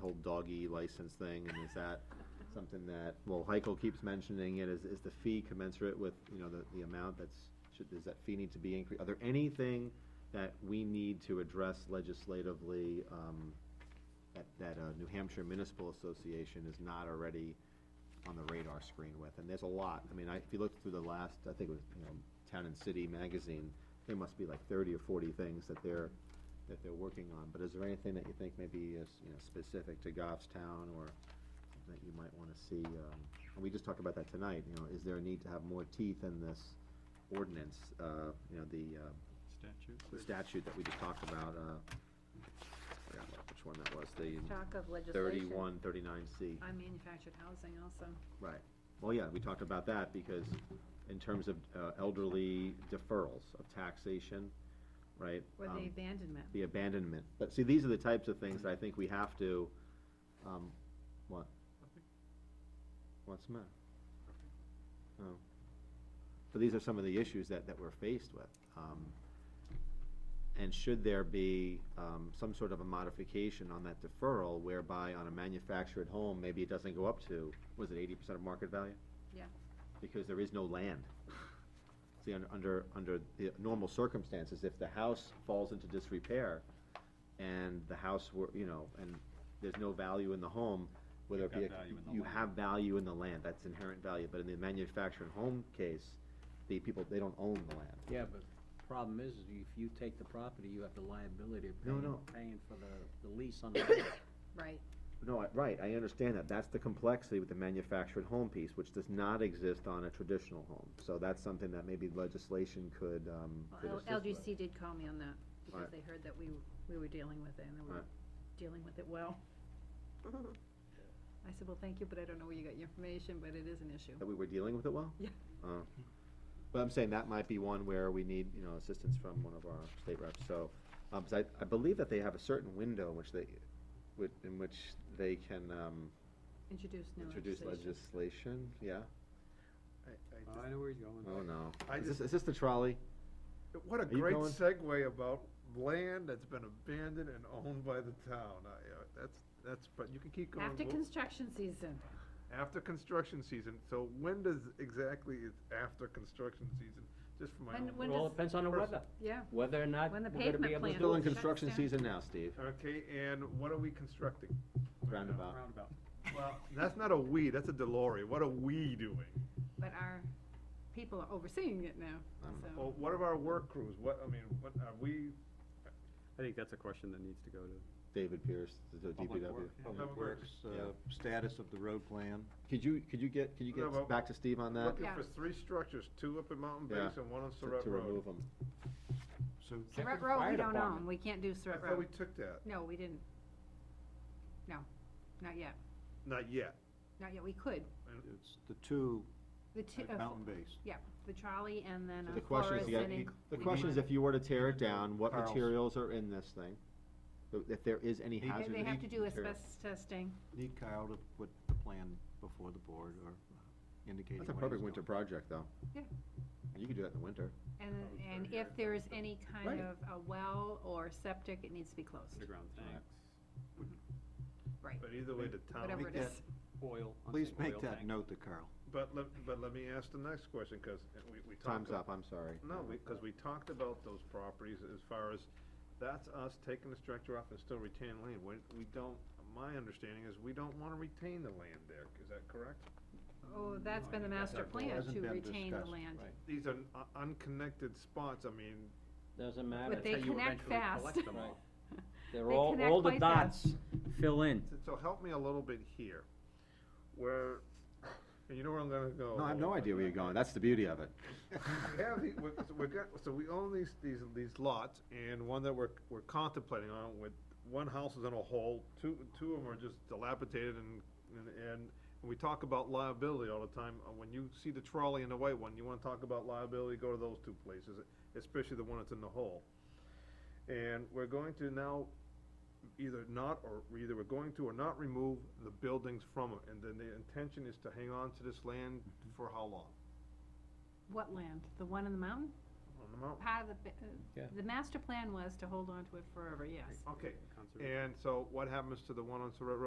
whole doggy license thing, and is that something that, well, Heiko keeps mentioning it, is, is the fee commensurate with, you know, the, the amount that's, should, does that fee need to be increased? Are there anything that we need to address legislatively, um, that, that, uh, New Hampshire Municipal Association is not already on the radar screen with, and there's a lot. I mean, I, if you look through the last, I think it was, you know, Town and City magazine, there must be like thirty or forty things that they're, that they're working on, but is there anything that you think maybe is, you know, specific to Goffstown or that you might wanna see, um, and we just talked about that tonight, you know, is there a need to have more teeth in this ordinance, uh, you know, the, uh, Statute? the statute that we just talked about, uh, I forgot what- which one that was, the Talk of legislation. thirty-one, thirty-nine C. On manufactured housing also. Right. Well, yeah, we talked about that because in terms of uh, elderly deferrals of taxation, right? Or um, the abandonment. The abandonment. But see, these are the types of things that I think we have to, um, what? What's the matter? Oh. So these are some of the issues that, that we're faced with. Um, and should there be, um, some sort of a modification on that deferral whereby on a manufactured home, maybe it doesn't go up to, was it eighty percent of market value? Yeah. Because there is no land. See, un- under, under the normal circumstances, if the house falls into disrepair and the house were, you know, and there's no value in the home, whether it be, a- You've got value in the you land. have value in the land, that's inherent value, but in the manufactured home case, the people, they don't own the land. Yeah, but problem is, is if you take the property, you have the liability of No, paying, no. paying for the, the lease on the. land. Right. No, I- right, I understand that, that's the complexity with the manufactured home piece, which does not exist on a traditional home, so that's something that maybe legislation could, um, could Well, assist L- with. LGC did call me on that because Right. they heard that we, we were dealing with it and we were Right. dealing with it well. I said, well, thank you, but I don't know where you got your information, but it is an issue. That we were dealing with it well? Yeah. Oh. But I'm saying that might be one where we need, you know, assistance from one of our state reps, so, um, 'cause I, I believe that they have a certain window in which they, with, in which they can, um, Introduce new introduce legislation. legislation, yeah? I- I know where he's going. Oh, no. I Is this, is this the trolley? I- What a Are you great going- segue about land that's been abandoned and owned by the town. I, uh, that's, that's, but you can keep going. After Well, construction season. After construction season, so when does exactly is after construction season? Just for my When- own. when It all does- depends on the weather, Yeah. whether or not we're When the gonna be pavement able to plan- do Still in it. Shuts construction down. season now, Steve, Okay, and what are we constructing? roundabout. Roundabout. Well, that's not a we, that's a Delory. What are we doing? But our people are overseeing it now, I'm- so. Well, what of our work crews? What, I mean, what are we? I think that's a question that needs to go to. David Pierce, the Public DPW. Work- Public Public Works, uh, Yeah. status of the road plan. Could you, could you get, could you No, get but- back to Steve on that? Looking Yeah. for three structures, two up in Mountain Yeah, Base and one on to- Surratt To remove Road. them. So Check with Surratt the Road, fire we don't department. own. We can't do I Surratt thought we Road. took that. No, we didn't. No, not yet. Not yet. Not yet. We could. it's the two The two, at Mountain Base. yeah, the trolley and then So uh, The question Flores is, you got- and you- in- the we question need- is if you were to tear it down, what Carl's. materials are in this thing? If- If there is any They- they They- hazardous They have to do material. asbestos testing. Need Kyle to put the plan before the board or uh, indicating That's a what he's perfect winter doing. project, though. Yeah. You could do that in the winter. And, Probably and thirty if yards there is down. any Right. kind of a well or septic, it needs to be closed. Underground tanks, Right, But either way, the town. whatever it that- is. oil. I'm Please saying oil make that tanks. note to Carl. But let, but let me ask the next question, because we, we talked. Time's a- up, I'm sorry. No, because we talked about those properties as far as, that's us taking the structure off and still retaining land. We, we don't, my understanding is we don't wanna retain the land there, is that correct? Oh, that's been the master plan Hasn't to been retain the discussed, land. right. These are un- unconnected spots, I mean, Doesn't matter, But they That's how you connect eventually fast. collect them all. they're they all, connect all the quite fast. dots fill in. so- so help me a little bit here, where, and you know where I'm gonna go. No, I have no idea where you're going, that's the beauty of it. We have the, we're, so we got, so we own these, these, these lots, and one that we're, we're contemplating on with, one house is in a hole, two, two of them are just dilapidated and, and, and we talk about liability all the time, Uh, when you see the trolley and the white one, you wanna talk about liability, go to those two places, especially the one that's in the hole. And we're going to now either not, or either we're going to or not remove the buildings from it, and then the intention is to hang on to this land for how long? What land? The one in the mountain? On the mountain? Part of the, bi- uh, Yeah. the master plan was to hold on to it forever, yes. Okay, Conservation. and so what happens to the one on Surratt Road?